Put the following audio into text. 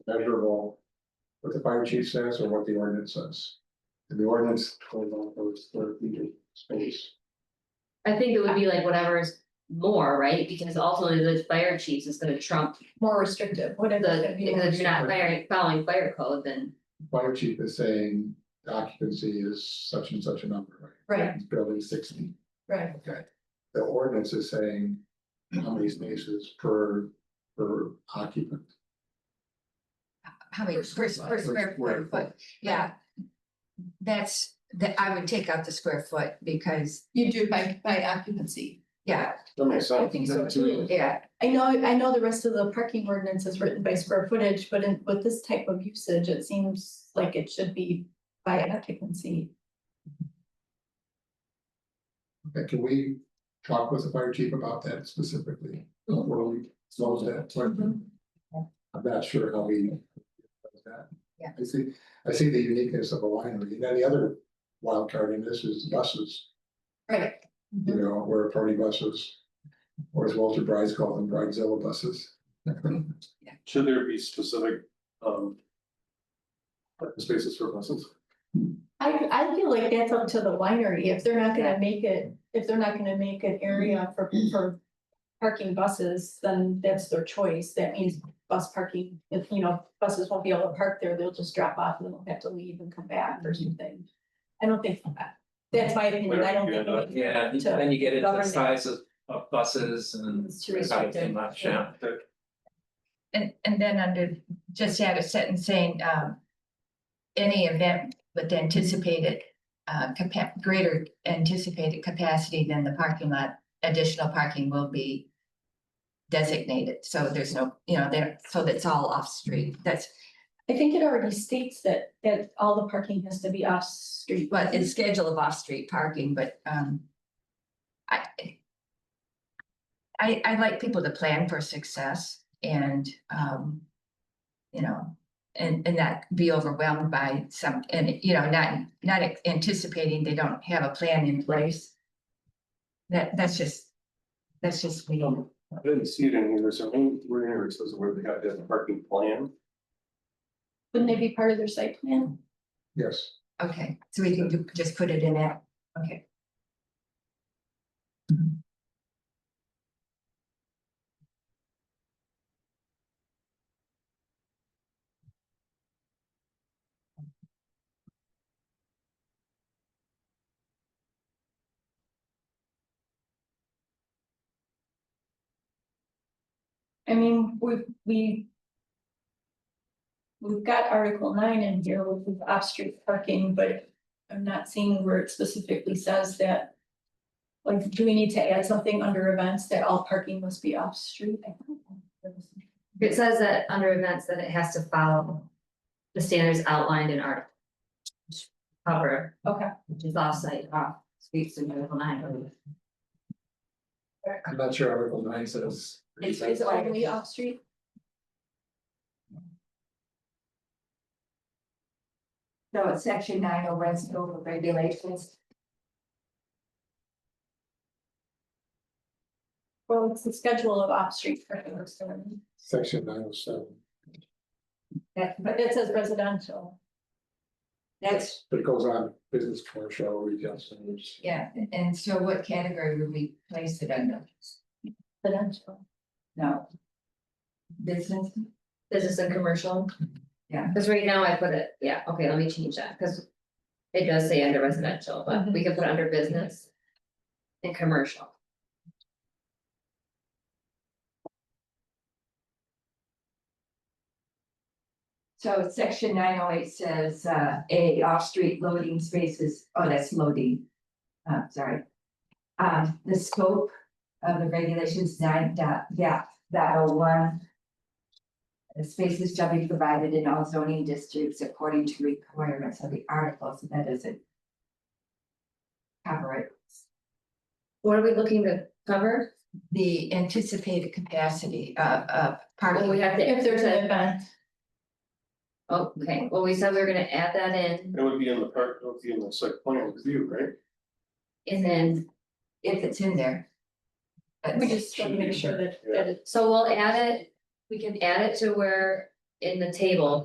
measurable. What the fire chief says or what the ordinance says. And the ordinance told on those square feet of space. I think it would be like whatever is more, right, because ultimately the fire chiefs is gonna trump more restrictive, whatever. it's the, gonna be more because if you're not firing, restrictive. following fire code, then. Fire chief is saying occupancy is such and such a number, right? Right, It's Building sixty. right, the ordinance is saying how many spaces per, per occupant. how many, per, per square square foot, but, yeah. That's, that, I would take out the square foot, because, you do by by occupancy. yeah, That makes sense. I think so, too. yeah, I know, I know the rest of the parking ordinance is written by square footage, but in with this type of usage, it seems like it should be by occupancy. Okay, can we talk with the fire chief about that specifically? Before we close that, Mhm. Mm-hmm. I'm not sure how we. that. Yeah. I see, I see the uniqueness of a winery, and then the other wild card in this is buses, Right. you Mm-hmm. know, where party buses. Or as Walter Bryce called them, bridezilla buses. Should there be specific, um. Spaces for buses? I I feel like that's up to the winery, if they're not gonna make it, if they're not gonna make an area for for. Parking buses, then that's their choice, that means bus parking, if you know, buses won't be able to park there, they'll just drop off and they'll have to leave and come back or something. I don't think, that's my opinion, I don't think. we need Yeah, to- then you get into the govern that. size of of buses and It's too there's not too restrictive, much, yeah. yeah. and, and then under, just add a sentence saying, um. Any event with anticipated, uh, capa- greater anticipated capacity than the parking lot, additional parking will be. Designated, so there's no, you know, there, so that's all off street, that's, I think it already states that that all the parking has to be off street. but it's schedule of off-street parking, but, um. I. I, I like people to plan for success and, um. You know, and, and not be overwhelmed by some, and, you know, not, not anticipating they don't have a plan in place. That, that's just, that's just me. I didn't see it in here, so I think we're in here, it says where they have the parking plan. Wouldn't they be part of their site plan? Yes. Okay, so we can ju- just put it in that, okay. I mean, we, we. We've got article nine in here with the off-street parking, but I'm not seeing where it specifically says that. Like, do we need to add something under events that all parking must be off-street? I don't know. It says that under events that it has to follow the standards outlined in article. which Cover, Okay, which is off-site, off, streets and article nine. I'm not sure Article nine says. It's- is it only off-street? So it's section nine oh West over regulations. Well, it's the schedule of off-street parking, or something. Section nine oh seven. but it says residential. That's, But it goes on business, commercial, retail centers. yeah, and so what category would we place it under? Residential. No. Business, Business and commercial. Yeah. Cause right now I put it, yeah, okay, let me change that, cause it does say under residential, Mm-hmm. but we could put it under business. And commercial. so section nine oh eight says, uh, A, off-street loading spaces, oh, that's loading. Uh, sorry. Um, the scope of the regulations nine dot, yeah, dot oh one. The spaces shall be provided in all zoning districts according to requirements of the article, so that doesn't. Cover it. What are we looking to cover? The anticipated capacity of, of Well, we have to. If there's an event. Okay, well, we said we were gonna add that in It would be in the park, it would be in the site plan review, right? and then, if it's in there. We just want to make sure that that it's so we'll add it, we can add it to where in the table